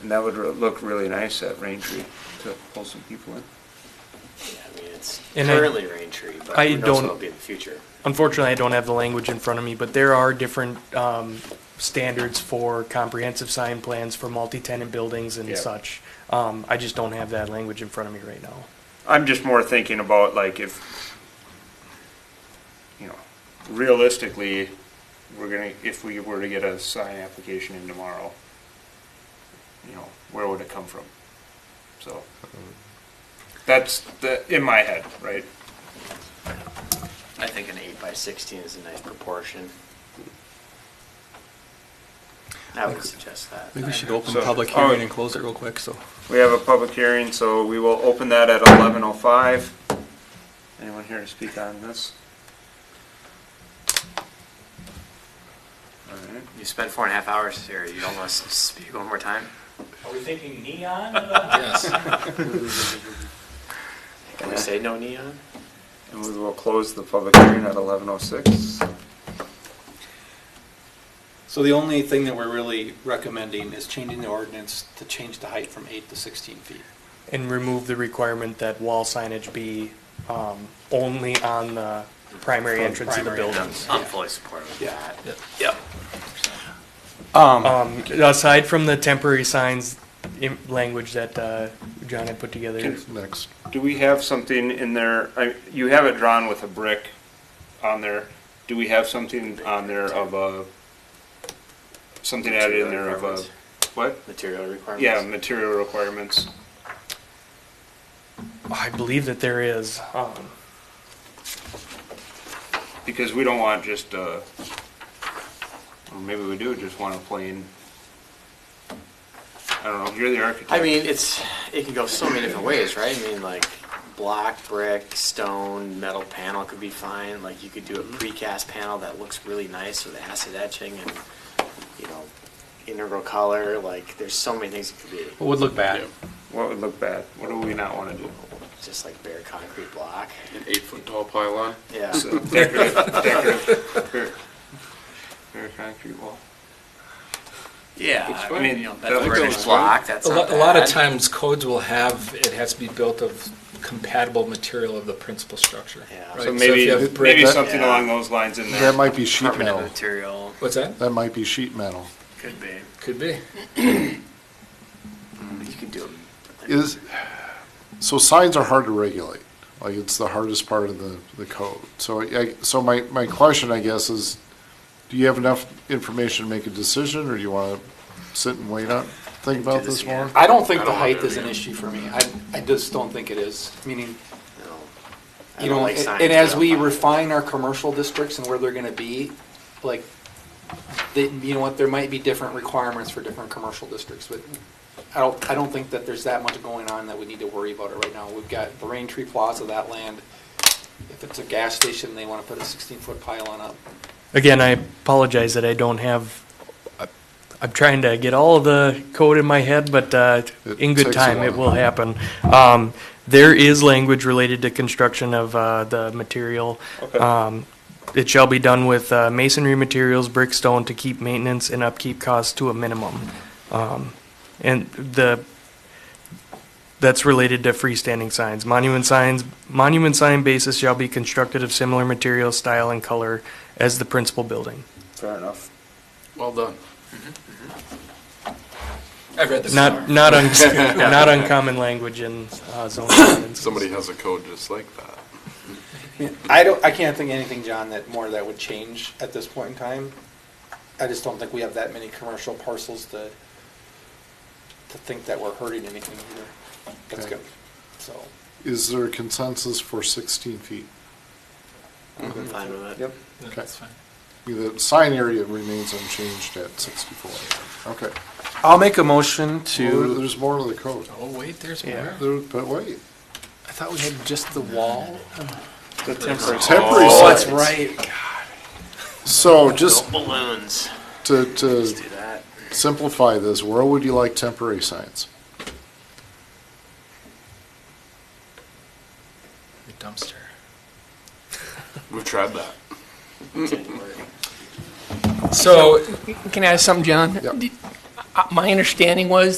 And that would re- look really nice at Rain Tree to pull some people in. I mean, it's And I- currently rain tree, but I who knows don't- what it'll be in the future. Unfortunately, I don't have the language in front of me, but there are different um, standards for comprehensive sign plans for multi-tenant buildings Yeah. and such. Um, I just don't have that language in front of me right now. I'm just more thinking about like if, you know, realistically, we're gonna, if we were to get a sign application in tomorrow, you know, where would it come from? So, that's the, in my head, right? I think an eight by sixteen is a nice proportion. I would suggest that. I think we should open So- public all right. hearing and close it real quick, so. We have a public hearing, so we will open that at eleven oh five. Anyone here to speak on this? All right. You spent four and a half hours here, you don't want us to speak one more time? Are we thinking neon? Yes. Can we say no neon? And we will close the public hearing at eleven oh six. So the only thing that we're really recommending is changing the ordinance to change the height from eight to sixteen feet. And remove the requirement that wall signage be um, only on the primary From entrance of the primary building. I'm, entrance. I'm fully supportive of that. Yep. Uh, Um, Um, Aside from the temporary signs im- language that uh, John had put together. Next. Do we have something in there, I, you have it drawn with a brick on there, do we have something on there of a, something added in there of a, what? Material requirements? Yeah, material requirements, I believe that there is. um, because we don't want just uh or maybe we do just want a plain, I don't know, you're the architect. I mean, it's, it can go so many different ways, right? I mean, like, block, brick, stone, metal panel could be fine, like, you could do a precast panel that looks really nice with acid etching and, you know, integral color, like, there's so many things it could be, Would look bad. What would look bad, what do we not wanna do? just like bare concrete block, An eight-foot tall pylon. yeah. So decorative, decorative, bare- bare concrete wall. It's Yeah, I fine, mean, you know, that's that brick looks fine. block, that's A not lot, a lot of bad. times codes will have, it has to be built of compatible material of the principal structure. Yeah. right? So if maybe, you have brick- maybe that- something Yeah. along those lines in there. That might be sheet Permanent metal. material, What's that? Um, That might be sheet metal. could be, Could be. you could do them. Is, so signs are hard to regulate. Like, it's the hardest part of the, the code. So I, so my, my question, I guess, is do you have enough information to make a decision, or do you want to sit and wait on, think about this this more? again. I don't think I the don't want height to is an do it. issue for me. I, I just don't think it is, meaning, No. I you don't know, like and signs and that as are we fine. refine our commercial districts and where they're gonna be, like, they, you know what, there might be different requirements for different commercial districts, but I don't, I don't think that there's that much going on that we need to worry about it right now. We've got the Rain Tree Plaza, that land, if it's a gas station, they wanna put a sixteen-foot pylon up. Again, I apologize that I don't have, I'm trying to get all the code in my head, but uh, It in good takes a time, it while. will happen. Um, There is language related to construction of uh, the material. Um, It shall be done with uh, masonry materials, brick, stone, to keep maintenance and upkeep costs to a minimum. Um, And the, that's related to freestanding signs. Monument signs, monument sign bases shall be constructed of similar material, style, and color as the principal building. Fair enough. Well done. I've read this. Not, not, un- not uncommon language in uh, zoning ordinances. Somebody has a code just like that. I don't, I can't think of anything, John, that more that would change at this point in time. I just don't think we have that many commercial parcels to, to think that we're hurting anything either. That's Okay. good, so. Is there a consensus for 16 feet? I'm fine with it. No, That's fine. The sign area remains unchanged at 64. Okay. I'll make a motion Well, There's more to the code. Oh, wait, there's Yeah. more. There- But wait, I thought we had just the wall. The temporary. temporary Oh, that's signs. right. So just Built balloons. to, to Let's do that. simplify this, where would you like temporary signs? The dumpster. We've tried that. Didn't work. So Can I ask something, John? Yep. Did- uh, My understanding was